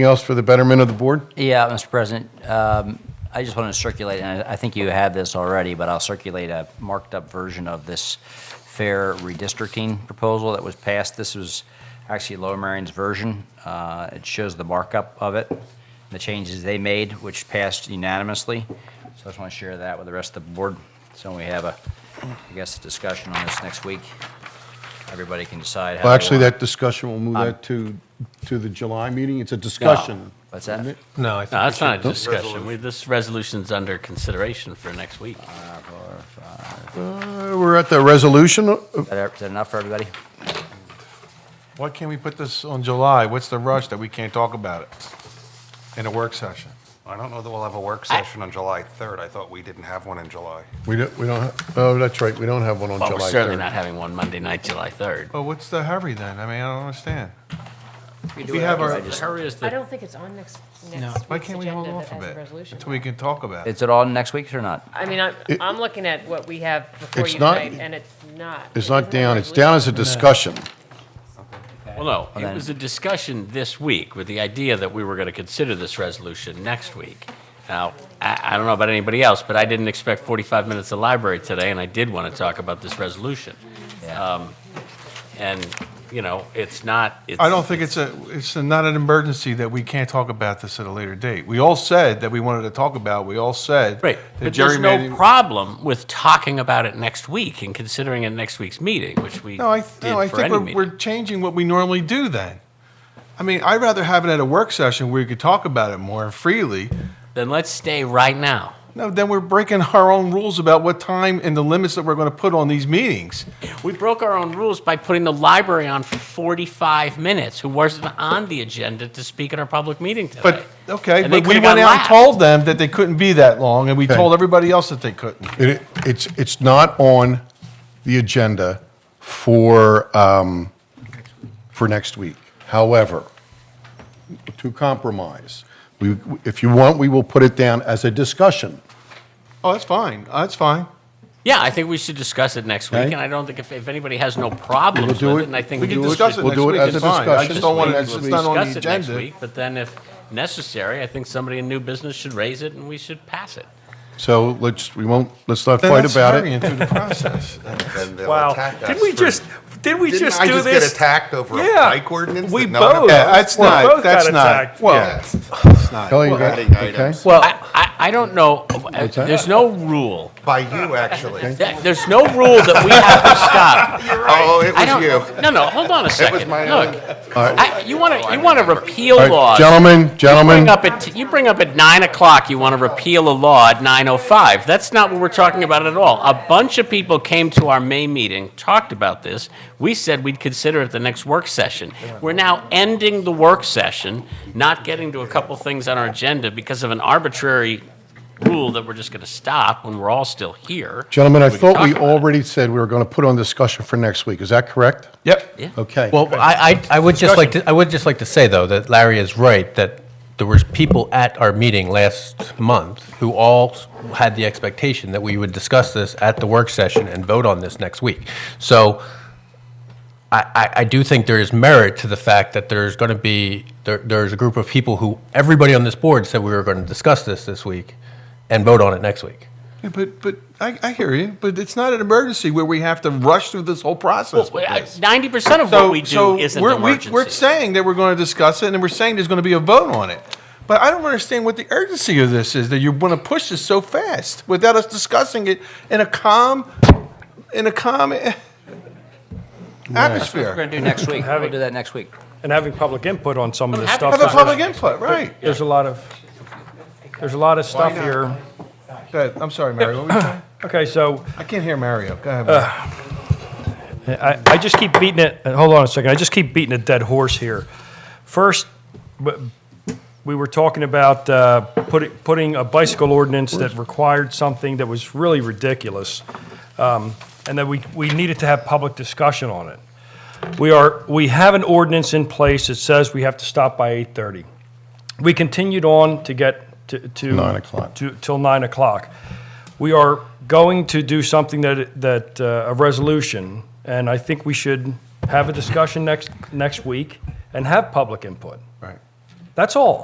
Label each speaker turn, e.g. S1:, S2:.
S1: Anything else for the betterment of the board?
S2: Yeah, Mr. President, um, I just want to circulate, and I I think you have this already, but I'll circulate a marked-up version of this fair redistricting proposal that was passed. This was actually Lower Marion's version. Uh, It shows the markup of it, the changes they made, which passed unanimously. So I just want to share that with the rest of the board. So we have a, I guess, a discussion on this next week. Everybody can decide how they
S1: Well, actually,
S2: want-
S1: that discussion, we'll move that to, to the July meeting. It's a
S2: No.
S1: discussion.
S2: What's that?
S3: No, I
S4: No,
S3: think,
S4: that's not a discussion. We, this resolution's under consideration for next week.
S1: Uh, We're at the resolution. Uh,
S2: Is that- is that enough for everybody?
S5: Why can't we put this on July? What's the rush that we can't talk about it in a work session?
S6: I don't know that we'll have a work session on July 3rd. I thought we didn't have one in July.
S1: We don't, we don't, ha- oh, that's right, we don't have one on
S4: Well, we're
S1: July
S4: certainly
S1: 3rd.
S4: not having one Monday night, July 3rd.
S5: Well, Oh, what's the hurry then? I mean, I don't understand.
S4: If
S5: we have our-
S4: Hurry is
S7: I
S4: the,
S7: don't think it's on next, next
S5: Why
S7: week's
S5: can't we hold
S7: agenda
S5: off a
S7: as a
S5: bit
S7: resolution.
S5: until we can talk about it?
S2: Is it on next week or not?
S7: I mean, I'm,
S1: It-
S7: I'm looking at what we have before
S1: It's
S7: you
S1: not-
S7: tonight, and it's not.
S1: It's
S7: it
S1: not
S7: isn't a
S1: down, it's down as a discussion.
S4: well, no,
S2: then-
S4: it was a discussion this week with the idea that we were going to consider this resolution next week. Now, I, I don't know about anybody else, but I didn't expect 45 minutes of library today, and I did want to talk about this resolution. Um, And, you know, it's not, it's.
S5: I don't think it's a, it's not an emergency that we can't talk about this at a later date. We all said that we wanted to talk about, it. we all said.
S4: Right,
S5: that
S4: but there's no
S5: gerrymandering-
S4: problem with talking about it next week and considering it next week's meeting, which we
S5: No, I,
S4: did
S5: no, I
S4: for
S5: think
S4: any
S5: we're, we're
S4: meeting.
S5: changing what we normally do then. I mean, I'd rather have it at a work session where we could talk about it more freely.
S4: Then let's stay right now.
S5: No, then we're breaking our own rules about what time and the limits that we're going to put on these meetings.
S4: We broke our own rules by putting the library on for 45 minutes, who wasn't on the agenda to speak at our public meeting today.
S5: But, okay,
S4: And they
S5: but we
S4: could've got
S5: went out and
S4: laughed.
S5: told them that they couldn't be that long, and we
S1: Okay.
S5: told everybody else that they couldn't.
S1: It, it's, it's not on the agenda for, um, for next week. However, to compromise, we, if you want, we will put it down as a discussion.
S5: Oh, that's fine, that's fine.
S4: Yeah, I think we should discuss it next week,
S1: Okay.
S4: and I don't think if, if anybody has no problems
S1: do
S4: with
S1: it-
S4: it, and I think.
S5: We can
S4: do it
S5: discuss it
S1: we'll
S5: next
S1: do it
S5: week,
S1: as
S5: it's
S1: a
S5: fine. I
S1: discussion.
S5: just don't want,
S1: We'll
S5: it-
S1: do
S5: it's
S1: it
S5: not on the
S4: discuss it next
S5: agenda.
S4: week, But then if necessary, I think somebody in new business should raise it and we should pass it.
S1: So let's, we won't, let's not
S5: Then
S1: fight
S5: that's
S1: about
S5: hurrying
S1: it.
S5: through the process.
S6: Then they'll
S8: Wow.
S6: attack
S8: Did
S6: us
S8: we
S6: for-
S8: just, did we
S6: Didn't
S8: just
S6: I
S8: do
S6: just
S8: this?
S6: get attacked over a
S8: Yeah.
S6: bike ordinance?
S8: We
S6: that no one
S8: both-
S5: Yeah,
S6: opposed?
S5: that's
S8: We're
S5: not,
S8: both got
S5: that's not,
S8: attacked.
S5: well,
S6: Yeah.
S5: it's not.
S1: Kelly, you got-
S6: adding
S1: okay?
S6: items.
S4: Well, I, I, I don't know, uh,
S1: that?
S4: there's no rule,
S6: By you, actually.
S4: That- there's no rule that we have to stop.
S6: Oh, it
S4: I don't-
S6: was you.
S4: No, no, hold on a second.
S6: my
S4: Look,
S1: All right,
S4: I, you want to, you want to repeal
S1: all right,
S4: laws.
S1: Gentlemen,
S4: Bring
S1: gentlemen,
S4: up at, you bring up at nine o'clock, you want to repeal a law at nine oh five. That's not what we're talking about at all. A bunch of people came to our May meeting, talked about this. We said we'd consider it the next work session. We're now ending the work session, not getting to a couple things on our agenda because of an arbitrary rule that we're just going to stop when we're all still here.
S1: gentlemen, I
S4: can
S1: thought
S4: talk
S1: we
S4: about it.
S1: already said we were going to put on discussion for next week. Is that correct?
S5: Yep.
S1: Okay.
S9: Well, I, I, I would just like to, I would just like to say, though, that Larry is right, that there was people at our meeting last month who all had the expectation that we would discuss this at the work session and vote on this next week. So I, I, I do think there is merit to the fact that there's going to be, there, there's a group of people who, everybody on this board said we were going to discuss this this week and vote on it next week.
S5: Yeah, But, but, I, I hear you, but it's not an emergency where we have to rush through this whole process. with this.
S4: Ninety percent of what we do isn't
S5: we're, we-
S4: emergency.
S5: we're saying that we're going to discuss it, and we're saying there's going to be a vote on it. But I don't understand what the urgency of this is that you want to push this so fast without us discussing it in a calm, in a calm eh,
S2: We're
S5: atmosphere.
S2: going to do next week. We'll
S8: Having-
S2: do that next week.
S8: And having public input on some of this
S4: having
S8: stuff.
S5: Have a
S8: is-
S5: public input, right?
S8: There's a lot of, there's a lot of stuff here.
S5: Go ahead. I'm sorry, Mario. What were you saying?
S8: Okay, so
S5: I can't hear Mario. Go ahead. Mario.
S8: I, I just keep beating it, uh, hold on a second, I just keep beating a dead horse here. First, w- we were talking about uh, putting, putting a bicycle ordinance that required something that was really ridiculous, um, and that we, we needed to have public discussion on it. We are, we have an ordinance in place that says we have to stop by 8:30. We continued on to get to. to-
S1: Nine o'clock.
S8: to- Till 9 o'clock. We are going to do something that, that, uh, a resolution, and I think we should have a discussion next, next week and have public input.
S5: Right.
S8: That's all.